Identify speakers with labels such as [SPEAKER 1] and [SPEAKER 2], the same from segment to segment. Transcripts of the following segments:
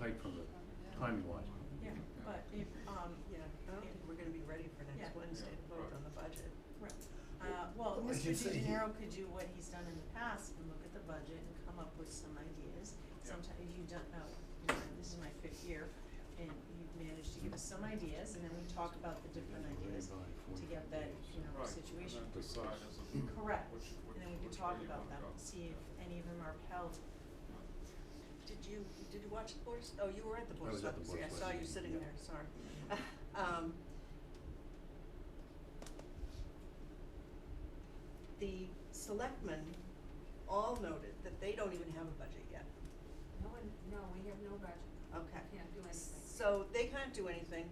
[SPEAKER 1] right from the timing wise.
[SPEAKER 2] Yeah, but if, um,
[SPEAKER 3] Yeah, I don't think we're gonna be ready for
[SPEAKER 2] Yeah.
[SPEAKER 3] next Wednesday to vote on the budget.
[SPEAKER 2] right, uh, well,
[SPEAKER 4] Well, I
[SPEAKER 2] Mr.
[SPEAKER 4] should say
[SPEAKER 2] De
[SPEAKER 4] he-
[SPEAKER 2] Gennaro could do what he's done in the past and look at the budget and come up with some ideas.
[SPEAKER 1] Yeah.
[SPEAKER 2] Sometimes you don't know, you know, this is my fifth year and you've managed to give us some ideas and then we talk about the different ideas to get that, you know, situation.
[SPEAKER 1] then decide as a group
[SPEAKER 2] Correct,
[SPEAKER 1] which-
[SPEAKER 2] and
[SPEAKER 1] which-
[SPEAKER 2] then we could
[SPEAKER 1] which
[SPEAKER 2] talk
[SPEAKER 1] way you
[SPEAKER 2] about
[SPEAKER 1] wanna
[SPEAKER 2] them,
[SPEAKER 1] go.
[SPEAKER 2] see if any of them are upheld.
[SPEAKER 3] Did you, did you watch the Board of, S- oh, you were at the Board of
[SPEAKER 1] was at the
[SPEAKER 3] Selectmen, see, I
[SPEAKER 1] Board of
[SPEAKER 3] saw you
[SPEAKER 1] Selectmen,
[SPEAKER 3] sitting
[SPEAKER 1] yeah.
[SPEAKER 3] there, sorry. Um, The selectmen all noted that they don't even have a budget yet,
[SPEAKER 5] No one, no, we have no budget.
[SPEAKER 3] okay.
[SPEAKER 5] We can't do anything.
[SPEAKER 3] So they can't do anything.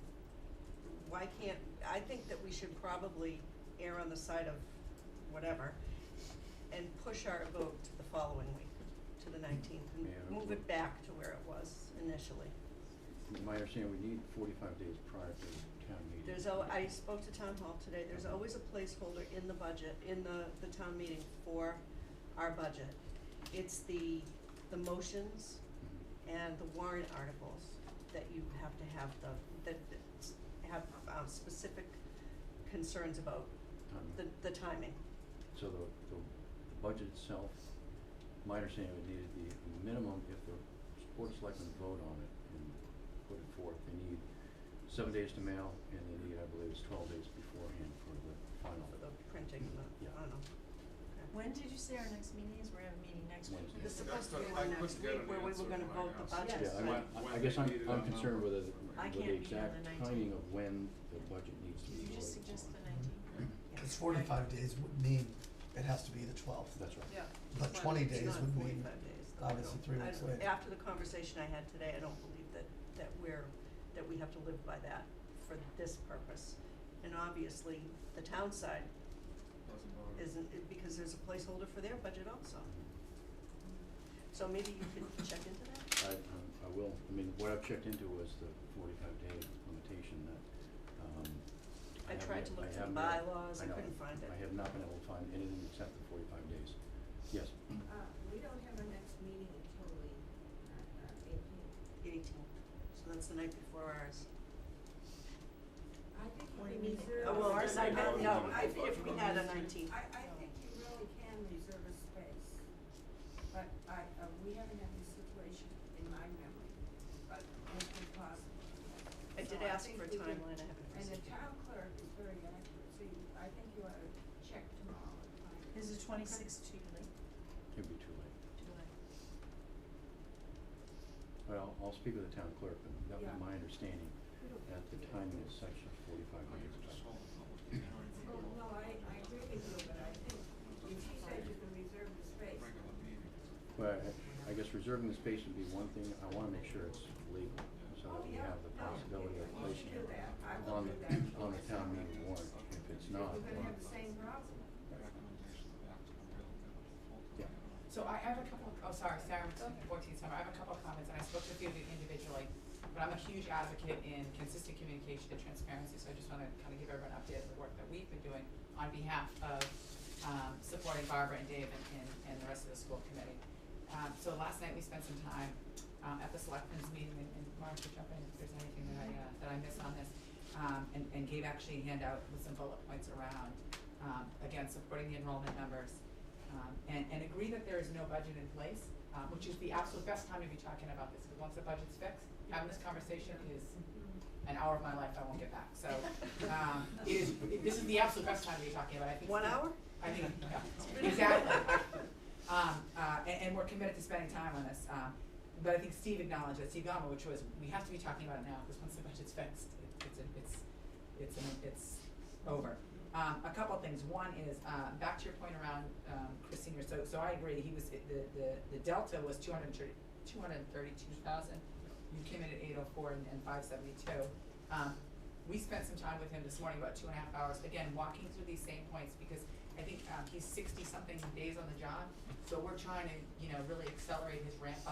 [SPEAKER 3] Why can't, I think that we should probably err on the side of whatever and push our vote to the following week, to the nineteenth, and
[SPEAKER 1] Yeah.
[SPEAKER 3] move it back to where it was initially.
[SPEAKER 1] From My understanding, we need forty-five days prior to town meeting.
[SPEAKER 3] There's al- I spoke to town hall today, there's always a placeholder in the budget, in the, the town meeting for our budget. It's the, the motions
[SPEAKER 1] Mhm.
[SPEAKER 3] and the warrant articles that you have to have the, that that s- have um specific concerns about
[SPEAKER 1] Timing.
[SPEAKER 3] the the timing.
[SPEAKER 1] So the, the, the budget itself, my understanding would need the minimum, if the board of selectmen vote on it and put it forth, they need seven days to mail, and they need, I believe, it's twelve days beforehand for the final.
[SPEAKER 3] For the printing, and the,
[SPEAKER 1] Yeah.
[SPEAKER 3] I don't know. Okay.
[SPEAKER 2] When did you say our next meeting is? We're having a meeting next week.
[SPEAKER 1] Wednesday.
[SPEAKER 3] This is supposed to
[SPEAKER 6] That's
[SPEAKER 3] be
[SPEAKER 6] what I
[SPEAKER 3] one
[SPEAKER 6] couldn't
[SPEAKER 3] next
[SPEAKER 6] get
[SPEAKER 3] week
[SPEAKER 6] an
[SPEAKER 3] where we were
[SPEAKER 6] answer
[SPEAKER 3] gonna
[SPEAKER 6] when I
[SPEAKER 3] vote the
[SPEAKER 6] asked.
[SPEAKER 3] budget,
[SPEAKER 1] Yeah, I
[SPEAKER 3] so-
[SPEAKER 1] mean, I, I guess I'm, I'm concerned with the,
[SPEAKER 2] I
[SPEAKER 1] with
[SPEAKER 2] can't
[SPEAKER 1] the
[SPEAKER 2] be here on
[SPEAKER 1] exact
[SPEAKER 2] the 19th.
[SPEAKER 1] timing of when the budget needs to be
[SPEAKER 2] Did you
[SPEAKER 1] voted on.
[SPEAKER 2] just suggest the nineteenth?
[SPEAKER 3] Yeah.
[SPEAKER 4] Cause forty-five days would mean it has to be the twelfth.
[SPEAKER 1] That's right.
[SPEAKER 3] Yeah.
[SPEAKER 4] But
[SPEAKER 3] Well,
[SPEAKER 4] 20
[SPEAKER 3] it's
[SPEAKER 4] days
[SPEAKER 3] not
[SPEAKER 4] would mean
[SPEAKER 3] 45 days, though, I
[SPEAKER 4] obviously
[SPEAKER 3] don't-
[SPEAKER 4] three
[SPEAKER 3] I
[SPEAKER 4] weeks
[SPEAKER 3] don't-
[SPEAKER 4] later.
[SPEAKER 3] After the conversation I had today, I don't believe that, that we're, that we have to live by that for this purpose. And obviously, the town side
[SPEAKER 6] Doesn't bother me.
[SPEAKER 3] isn't, it- because there's a placeholder for their budget also. So maybe you could check into that?
[SPEAKER 1] I, um, I will, I mean, what I've checked into was the forty-five day limitation that, um, I
[SPEAKER 3] I
[SPEAKER 1] have yet-
[SPEAKER 3] tried to
[SPEAKER 1] I
[SPEAKER 3] look through
[SPEAKER 1] have
[SPEAKER 3] the
[SPEAKER 1] not-
[SPEAKER 3] bylaws, I
[SPEAKER 1] know,
[SPEAKER 3] couldn't find it.
[SPEAKER 1] I have not been able to find anything except the forty-five days. Yes,
[SPEAKER 5] Uh, we don't have our next meeting until the, uh, uh, eighteenth.
[SPEAKER 3] Eighteenth, so that's the night before ours.
[SPEAKER 5] I think
[SPEAKER 2] What do you
[SPEAKER 5] you can
[SPEAKER 2] mean?
[SPEAKER 5] reserve.
[SPEAKER 3] Oh, well,
[SPEAKER 5] a
[SPEAKER 3] ours, I,
[SPEAKER 5] space.
[SPEAKER 3] bet- no, I,
[SPEAKER 6] Well,
[SPEAKER 3] if we had a nineteenth,
[SPEAKER 5] I, I think you really can reserve a space, but I, uh, we haven't had this situation in my memory, but it's impossible.
[SPEAKER 3] I did
[SPEAKER 5] So
[SPEAKER 3] ask
[SPEAKER 5] think
[SPEAKER 3] for a
[SPEAKER 5] we can-
[SPEAKER 3] timeline, I haven't
[SPEAKER 5] And the
[SPEAKER 3] received it.
[SPEAKER 5] town clerk is very accurate, so you, I think you ought to check tomorrow and find. out.
[SPEAKER 2] Is the twenty-sixth too late?
[SPEAKER 1] it'd be too late.
[SPEAKER 2] Too late.
[SPEAKER 1] But I'll, I'll speak with the town clerk, but that was
[SPEAKER 5] Yeah.
[SPEAKER 1] my understanding, that the timing is such a forty-five
[SPEAKER 6] Oh, you
[SPEAKER 1] days.
[SPEAKER 6] could just hold a public hearing for
[SPEAKER 5] Well, Oh, no, I, I agree with you, but I think if she said you can reserve the
[SPEAKER 6] a
[SPEAKER 5] space,
[SPEAKER 6] regular meeting.
[SPEAKER 1] But I, I guess reserving the space would be one thing, I wanna make sure it's legal, so
[SPEAKER 5] Oh,
[SPEAKER 1] that we
[SPEAKER 5] yeah.
[SPEAKER 1] have the
[SPEAKER 5] No,
[SPEAKER 1] possibility of
[SPEAKER 5] you should
[SPEAKER 1] placing
[SPEAKER 5] do
[SPEAKER 1] it
[SPEAKER 5] that. I will
[SPEAKER 1] on,
[SPEAKER 5] do
[SPEAKER 1] the-
[SPEAKER 5] that.
[SPEAKER 1] on the town meeting warrant, if it's not.
[SPEAKER 5] we're
[SPEAKER 1] well,
[SPEAKER 5] gonna have the same problem.
[SPEAKER 6] Recommendation back to the real, full
[SPEAKER 1] Yeah.
[SPEAKER 7] So I have a couple, oh, sorry, Sarah, fourteen, summer, I have a couple of comments, and I spoke to a few of you individually, but I'm a huge advocate in consistent communication and transparency, so I just wanna kind of give everyone an update of the work that we've been doing on behalf of, um, supporting Barbara and Dave and, and, and the rest of the school committee. Um, so last night we spent some time, um, at the selectmen's meeting, and, and Mark, you jump in if there's anything that I, uh, that I missed on this, um, and, and gave actually a handout with some bullet points around, um, again, supporting the enrollment numbers, um, and, and agree that there is no budget in place, um, which is the absolute best time to be talking about this, because once the budget's fixed, having this conversation is an hour of my life I won't get back, so, um, it is, it- this is the absolute best time to be talking about it, I think.
[SPEAKER 3] one
[SPEAKER 7] it's the-
[SPEAKER 3] hour?
[SPEAKER 7] I think, yeah, exactly. Um, uh, and, and we're committed to spending time on this, um, but I think Steve acknowledged that, Steve Gama, which was, we have to be talking about it now, because once the budget's fixed, it- it's, a- it's, it's, an- it's over. Um, a couple things, one is, uh, back to your point around, um, Chris Senior, so, so I agree, he was, the, the, the delta was two hundred and thirty, two hundred and thirty-two thousand. You came in at eight oh four and, and five seventy-two. Um, we spent some time with him this morning, about two and a half hours, again, walking through these same points, because I think, um, he's sixty-something days on the job, so we're trying to, you know, really accelerate his ramp up.